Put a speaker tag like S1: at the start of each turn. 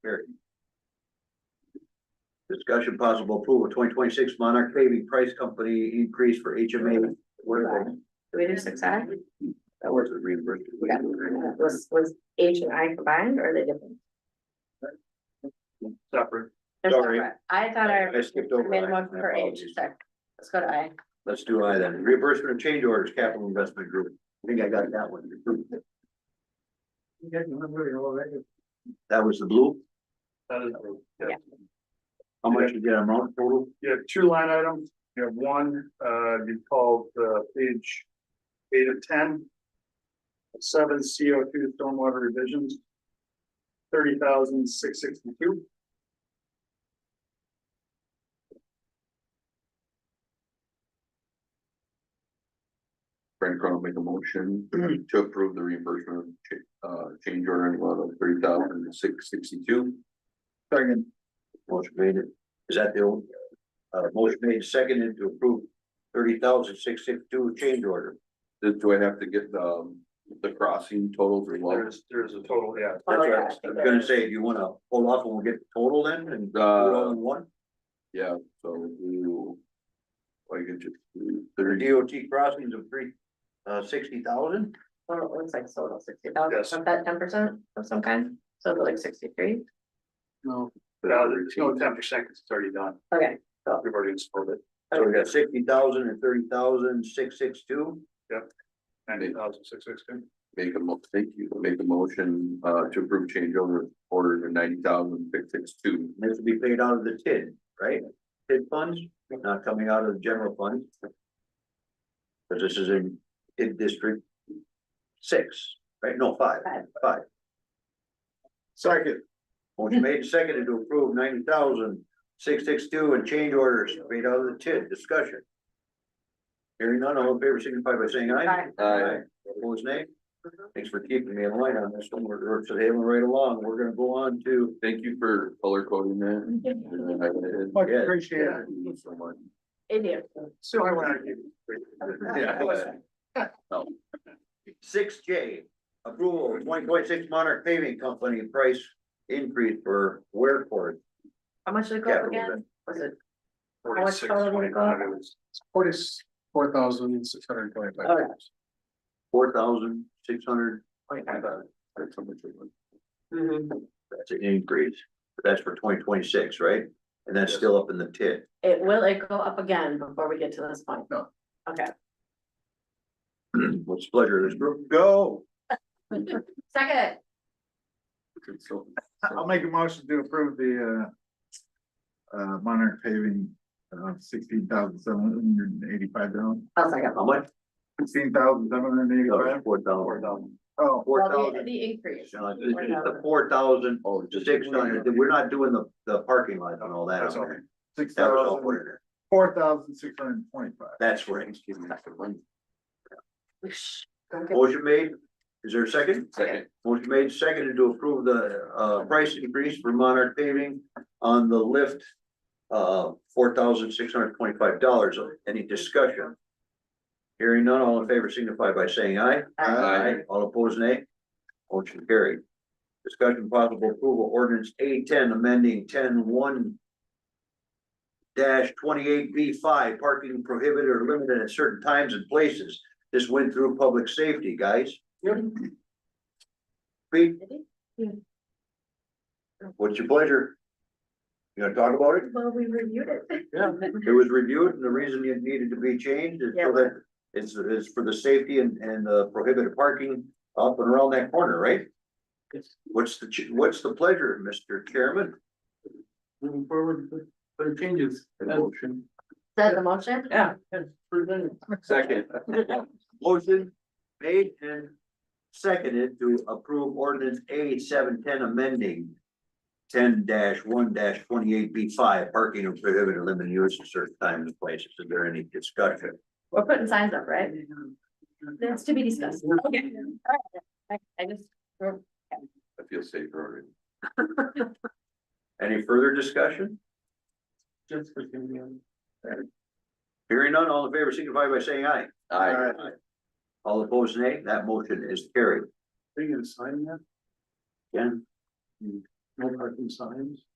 S1: Discussion possible approval of twenty twenty-six Monarch paving price company increase for HMA. What are they?
S2: Do we do six I?
S1: That was the reimbursement.
S2: Yeah. Was, was H and I combined or are they different?
S1: Separate.
S2: They're
S1: Sorry.
S2: separate. I thought I.
S1: I skipped over
S2: Made
S1: I.
S2: one
S1: My
S2: for H,
S1: apologies.
S2: sorry. Let's go to I.
S1: Let's do I then. Reimbursement of change orders, capital investment group. I think I got that one. That was the blue?
S3: That is,
S2: Yeah.
S1: How much you get a month total?
S3: you have two line items, you have one, uh, you called, uh, page eight of ten. Seven CO two stormwater revisions. Thirty thousand six sixty-two,
S4: Brent Cronin will make a motion to approve the reimbursement of cha- uh change order in the amount of three thousand six sixty-two.
S1: Second. Motion made, is that the, old, uh, motion made second and to approve thirty thousand six six two change order.
S4: Did, do I have to get um the crossing totals or what?
S3: there's, there's a total, yeah.
S1: That's
S2: Oh,
S1: what
S2: yeah,
S1: I
S2: I
S1: was
S2: think Uh,
S1: gonna say, do you wanna hold off and we'll get the total then and do it all in one?
S4: Yeah, Uh, so you. I could just. do
S1: The
S4: thirty-
S1: DOT crossings of three, uh, sixty thousand?
S2: Well, it looks like total sixty thousand,
S3: Yes.
S2: was that ten percent of some kind? So it'd be like sixty-three?
S3: No, there's no ten percent, it's already done,
S2: Okay,
S3: we've already installed it,
S1: So we got sixty thousand and thirty thousand six six two.
S3: ninety thousand six sixty.
S4: Make a mo, thank you, make a motion uh to approve change order order to ninety thousand six six two.
S1: And this will be paid out of the TID, right? TID funds, not coming out of the general fund. Cause this is in TID district six, right? No, five.
S2: Five.
S1: Five.
S3: Second.
S1: Motion made and seconded to approve ninety thousand six six two and change orders paid out of the TID. Discussion. Hearing none, all in favor signify by saying aye.
S2: Aye.
S4: Aye.
S1: Opposed, nay? Thanks for keeping me in line on this one. We're, we're sailing right along. We're gonna go on to,
S4: Thank you for color coding that. And I- I-
S3: Much
S1: Yeah.
S3: appreciated.
S4: Thank you so much.
S2: Idiot.
S3: So I want to.
S4: Yeah.
S1: Six J, approval of twenty point six Monarch Paving Company price increase for wear cord.
S2: How much did it go up again? Was it, How much
S3: Forty-six,
S2: taller would it
S3: twenty-five, it was. Forty-four thousand six hundred and twenty-five.
S2: oh, yeah.
S1: Four thousand six hundred,
S4: That's how much it was.
S2: Mhm.
S1: that's an increase. That's for twenty twenty six, right? And that's
S3: Yes.
S1: still up in the tit.
S2: It, will it go up again before we get to this point?
S3: No.
S2: Okay,
S1: What's the pleasure of this group? Go.
S2: second,
S4: So-
S5: I'll make a motion to approve the uh. Uh, Monarch paving, uh, sixteen thousand seven hundred and eighty-five dollars,
S2: I'll second.
S1: How much?
S5: sixteen thousand seven hundred and eighty-five.
S1: Four thousand.
S5: Oh,
S1: Four
S2: Well, the,
S1: thousand.
S2: the increase.
S1: Sean, this is The four thousand
S4: Oh, just.
S1: six hundred, we're not doing the, the parking lot and all that.
S3: That's
S1: on
S3: all.
S1: there.
S5: six
S1: That was all
S5: thousand,
S1: put in there.
S5: four thousand six hundred and twenty-five.
S1: That's right.
S2: Don't get-
S1: Motion made. Is there a second?
S4: Second.
S1: Motion made, seconded to approve the uh price increase for Monarch paving on the lift. Uh, four thousand six hundred twenty-five dollars. Any discussion? Hearing none, all in favor signify by saying aye.
S4: Aye.
S1: All opposed, nay. Motion carried. Discussion possible approval ordinance A ten amending ten one. Dash twenty-eight B five parking prohibited or limited at certain times and places. This went through public safety, guys. Pete, what's your pleasure? You gonna talk about it?
S2: Well, we reviewed it.
S1: Yeah. It was reviewed and the reason it needed to be changed is so that it's, it's for the safety and, and the prohibited parking up and around that corner, right?
S3: Yes.
S1: What's the, ch- what's the pleasure, Mr. Chairman?
S3: Moving forward, with the changes.
S4: Motion.
S2: Said the motion?
S3: Yeah.
S4: Second.
S1: Motion made and seconded to approve ordinance A seven ten amending ten one twenty-eight B five, parking of prohibited limited use at certain times and places. Is there any discussion?
S2: We're putting signs up, right? That's to be discussed. Okay. I I just,
S4: I feel safer already.
S1: Any further discussion?
S3: uh,
S1: Hearing none, all in favor signify by saying aye.
S4: Aye.
S1: All opposed, nay. That motion is carried.
S3: Are you gonna sign that?
S1: Jen,
S3: Mm, No parking signs?